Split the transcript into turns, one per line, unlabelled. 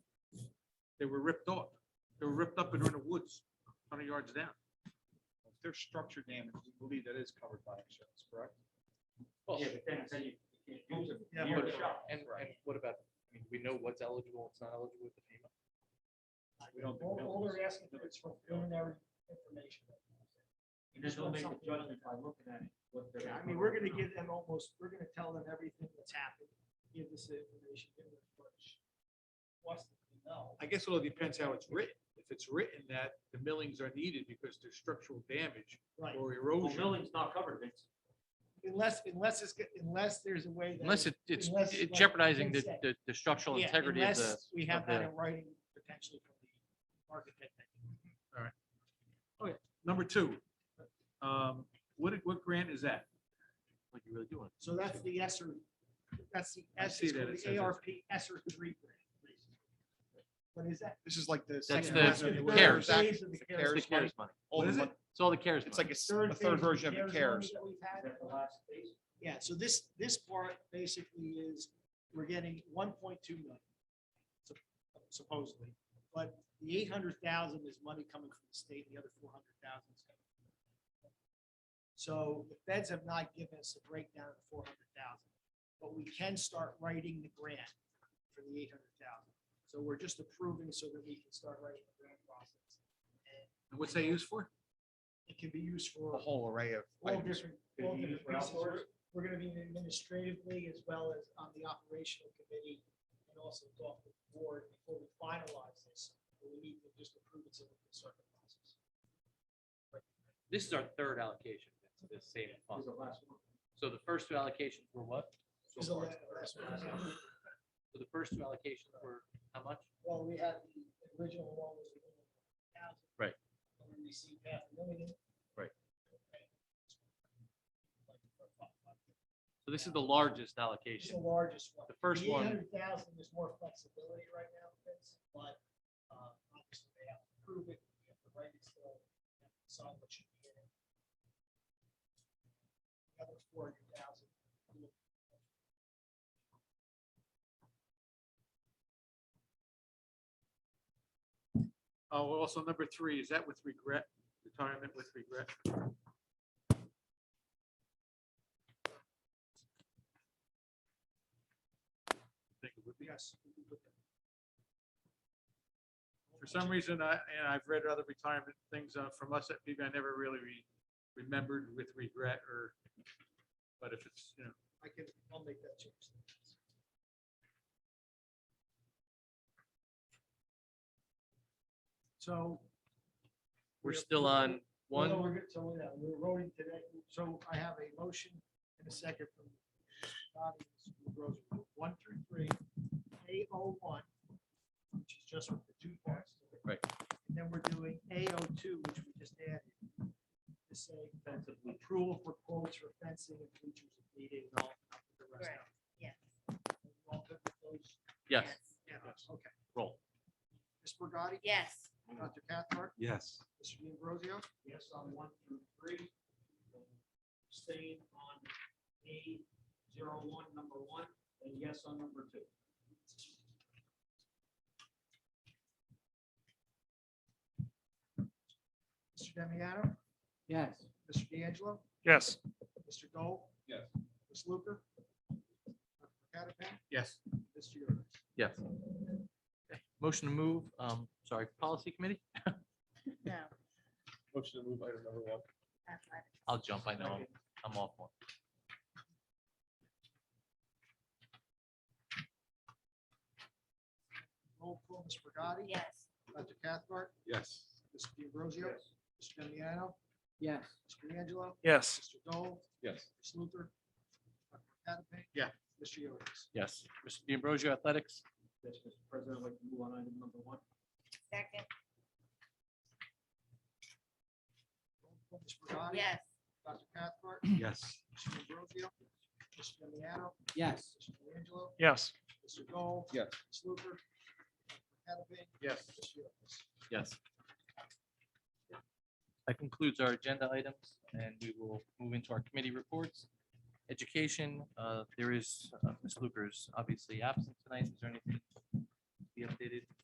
They were ripped off. They were ripped up and are in the woods, hundred yards down.
If there's structure damage, we believe that is covered by insurance, correct?
Yeah, but then, then you you can't use it.
Yeah,
near
but-
the shop.
And, and what about, I mean, we know what's eligible, it's not eligible with the FEMA.
We don't. do
All, all
buildings.
they're asking for is for preliminary information.
You just don't make a judgment by looking at it, what they're.
I mean, we're gonna give them almost, we're gonna tell them everything that's happened, give this information, give them much. What's the, no.
I guess it all depends how it's written. If it's written that the millings are needed because there's structural damage
Right,
or
Well,
erosion.
milling's not covered, Vince.
unless, unless it's, go- unless there's a way. that
Unless it, it's
unless, like
it jeopardizing the,
Vince said,
the, the structural
yeah,
integrity of the,
unless We have
of
that
the-
in writing potentially from the architect.
Number two, um, what, what grant is that?
like you really do want.
So that's the ESER, that's the
I see
ESER,
that it says
the
it's-
ARP ESER three grant. What is that?
This is like the.
That's
second
the
version of
the CARES.
Act,
phase of the
the
CARES
It's
CARES
the
money,
CARES money.
all
What
the
is
mon-
It's all the CARES
It's
money.
like a, s- a third
phase
version of the
money
CARES.
that we've
Is
had.
that the last phase?
Yeah, so this, this part basically is, we're getting one point two million sup- supposedly, but the eight hundred thousand is money coming from the state, the other four hundred thousand is coming. from the federal. So the feds have not given us a breakdown of the four hundred thousand, but we can start writing the grant for the eight hundred thousand. So we're just approving so that we can start writing the grant process. And
And what's that used for?
it can be used for
A whole array of
all
items.
different,
Could
all
you use it for
different pieces. We're-
outdoors?
We're gonna be administratively as well as on the operational committee and also talk with the board before we finalize this. We need to just approve it so we can start the process.
This is our third allocation, to this same
Is
fund.
the last one.
So the first two allocations were what?
Is the la- last one.
So the first two allocations were how much?
Well, we had the original one was. the $100,000.
Right.
And we received half a million.
Right.
Okay.
So this is the largest
It's the
allocation.
largest one.
The first
Eight
one,
hundred thousand, there's more flexibility right now, Vince, but, uh, obviously they have to prove it, we have to write it still, we have to decide what should be in it. The other four hundred thousand.
Oh, also number three, is that with regret, retirement with regret? Think it would be.
Yes.
For some reason, I, and I've read other retirement things uh, from us at PB, I never really re- remembered with regret or, but if it's, you know,
I can, I'll make that change. So.
we're still on
Well,
one.
we're good, so, yeah, we're voting today, so I have a motion and a second from Bobby Rosen, one through three, A O one, which is just with the two parts. to it.
Right.
And then we're doing A O two, which we just added, to say approval for quotes for fencing and features if needed, and all, I'll put the rest out.
Yes.
You all good with those?
Yes,
Yeah, okay.
roll.
Ms. Bragati?
Yes.
Dr. Cathcart?
Yes.
Mr. Ambrosio? Yes, on one through three. Staying on A zero one, number one, and yes on number two. Mr. Demiano?
Yes.
Mr. D'Angelo?
Yes.
Mr. Dole?
Yes.
Ms. Luker? Dr. Catapult?
Yes.
Mr. Yoder?
Yes. Okay. Motion to move, um, sorry, policy committee?
No.
Motion to move item number one.
athletic.
I'll jump, I know, I'm- I'm off one.
Roll call, Ms. Bragati?
Yes.
Dr. Cathcart?
Yes.
Mr. D'Ambrosio? Mr. Demiano?
Yes.
Mr. D'Angelo?
Yes.
Mr. Dole?
Yes.
Ms. Luther? Dr. Catapult?
Yeah.
Mr. Yoder's.
Yes. Mr. D'Ambrosio Athletics?
Yes, Mr. President, I'd like to move on item number one.
Second.
Ms. Bragati?
Yes.
Dr. Cathcart?
Yes.
Mr. Ambrosio? Mr. Demiano?
Yes.
Mr. D'Angelo?
Yes.
Mr. Dole?
Yes.
Ms. Luther? Dr. Catapult?
Yes.
Mr. Yoder's.
Yes. That concludes our agenda items, and we will move into our committee reports. Education, uh, there is, uh, Ms. Luker's obviously absent tonight. Is there anything to be updated?